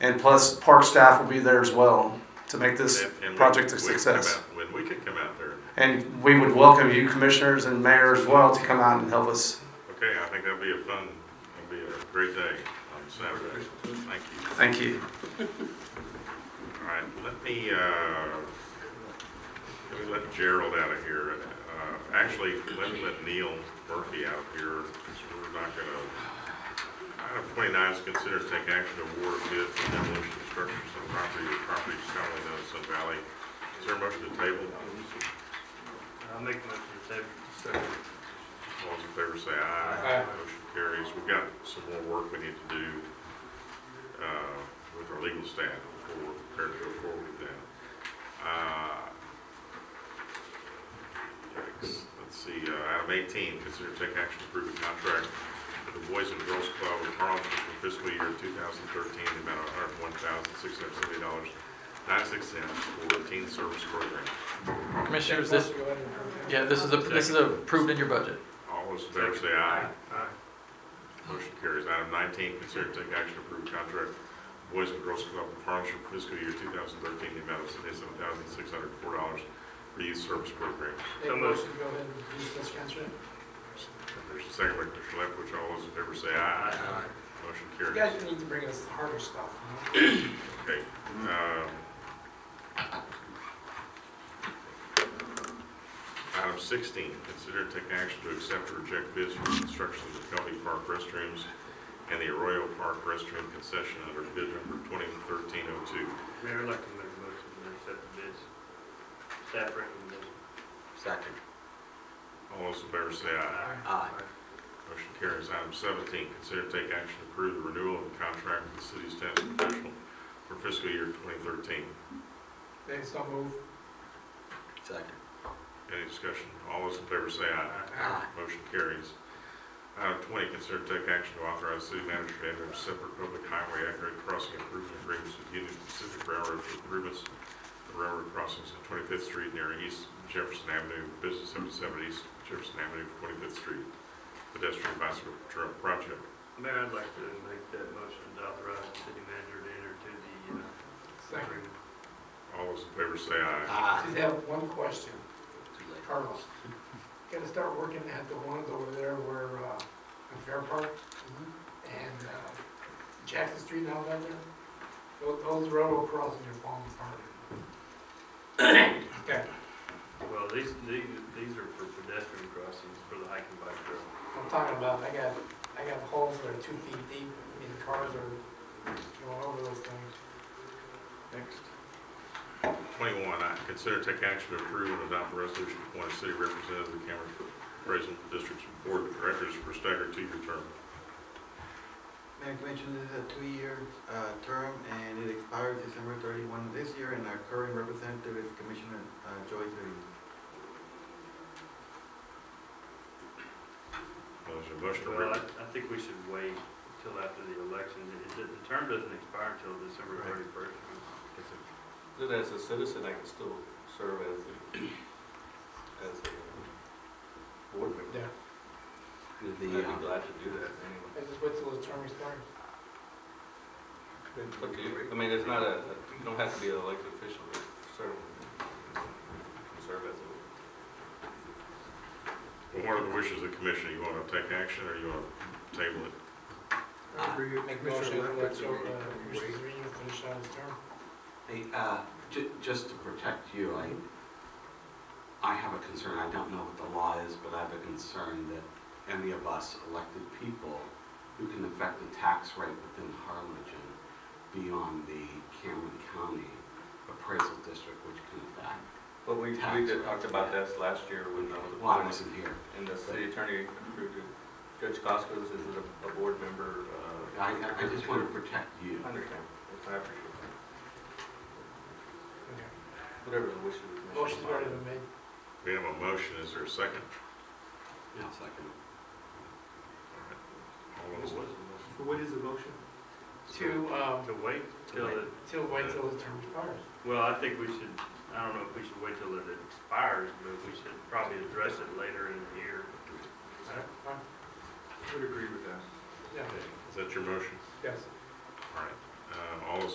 And plus, park staff will be there as well to make this And- and we- project a we can come success. out- When we can come out there, And we would welcome you commissioners and mayor as well to come out and help us. okay, I think that'd be a fun, that'd be a great day on Saturday. Thank you. Thank you. All right, let me, uh, let me let Gerald out of here. Uh, Actually, let me let Neil Murphy out of here, because we're not gonna, item twenty-nine is consider to take action to award bid for demolition of structures on property or properties commonly known as Sun Valley. Is there a motion to table? I'll make a motion to table. All those in favor say aye. Motion carries. We've got some more work we need to do uh, with our legal staff before we're prepared to go forward with that. Uh, yikes. Let's see, uh, item 18, consider take action to approve a contract with the Boys and Girls Club of Harlem for fiscal year 2013, the amount of $101,670.96 for teen service program. Commissioners, this, yeah, this is, a- this is approved in your budget. All those in favor say aye. Motion carries. Item nineteen, consider to take action to approve contract Boys and Girls Club of Harlem for fiscal year two thousand thirteen, the amount of seventy-seven thousand six hundred four dollars for youth service programs. So moved. Go ahead and use this contract. There's a second by Commissioner Lefkovich. All those in favor say aye. Motion You carries. guys need to bring us harder stuff. Okay, um. Item sixteen, consider to take action to accept or reject bids for construction of the Pelley Park restrooms and the Arroyo Park restroom concession under bid number twenty thirteen oh two. Mayor, I'd like to make a motion to accept the bids. Staff recommendation. Second. All those in favor say aye. Aye. Motion carries. Item seventeen, consider to take action to approve the renewal of the contract with the city staff professional for fiscal year twenty thirteen. They so move. Second. Any discussion? All those in favor say aye. Aye. Motion carries. Item twenty, consider to take action to authorize city manager to enter into separate public highway aggregate crossing improvement agreements with Union Pacific Railroad for improvements to railroad crossings at Twenty-Fifth Street near East Jefferson Avenue, Business Seventy-seven East Jefferson Avenue, Twenty-Fifth Street pedestrian bicycle trail project. Mayor, I'd like to make that motion to authorize the city manager to enter to the, uh, Second. agreement. All those in favor say aye. I Aye. just have one question, Too late. Carlos. Gotta start working at the ones over there where, uh, in Fair Park and, uh, Jackson Street now down there. Those, those railroad crossings are falling apart. Okay, Well, these, these, these are for pedestrian crossings for the hike and bike trail. I'm talking about, I got, I got holes that are two feet deep, I mean, the cars are going over those things. Next. Twenty-one, I consider take action to approve and adopt a resolution to appoint a city representative to the Cameron Appraisal District's Board of Directors for staggered two-year term. Mayor Commissioner, this is a two-year uh, term, and it expires December 31 of this year, and our current representative is Commissioner uh, Joyce Reyes. There's a motion to re- Well, I, I think we should wait till after the election. It- it- The term doesn't expire till December Right. thirty-first. Yes, sir. That as a citizen, I can still serve as, a- as a board member. Yeah. With I'd the, be um, glad to do that anyway. I just wait till the term expires. It's up to you. I mean, it's not a, you don't have to be an elected official to serve, serve as a Well, what are the wishes of the commission? You want to take action or you want to table it? Make motion that let Joe, uh, Commissioner Zerino finish out his term. hey, uh, ju- just to protect you, I, I have a concern, I don't know what the law is, but I have a concern that any of us elected people who can affect the tax rate within Harlingen beyond the Cameron County appraisal district, which can affect. But we, we did talk about this last year when I was Well, I appointed, wasn't here. and the city attorney approved it. Judge Costco's is a, a board member, uh. I, I- I just want to protect you. I understand. I appreciate that. Okay. Whatever the wishes of the commission. Motion's already been made. We have a motion. Is there a second? No, it's like a- All those- What is the motion? To, um, To wait till it, till, wait till the term expires. well, I think we should, I don't know if we should wait till it expires, but we should probably address it later in the year. Fine. Would agree with that. Yeah, Is that your motion? yes. All right. Uh, All those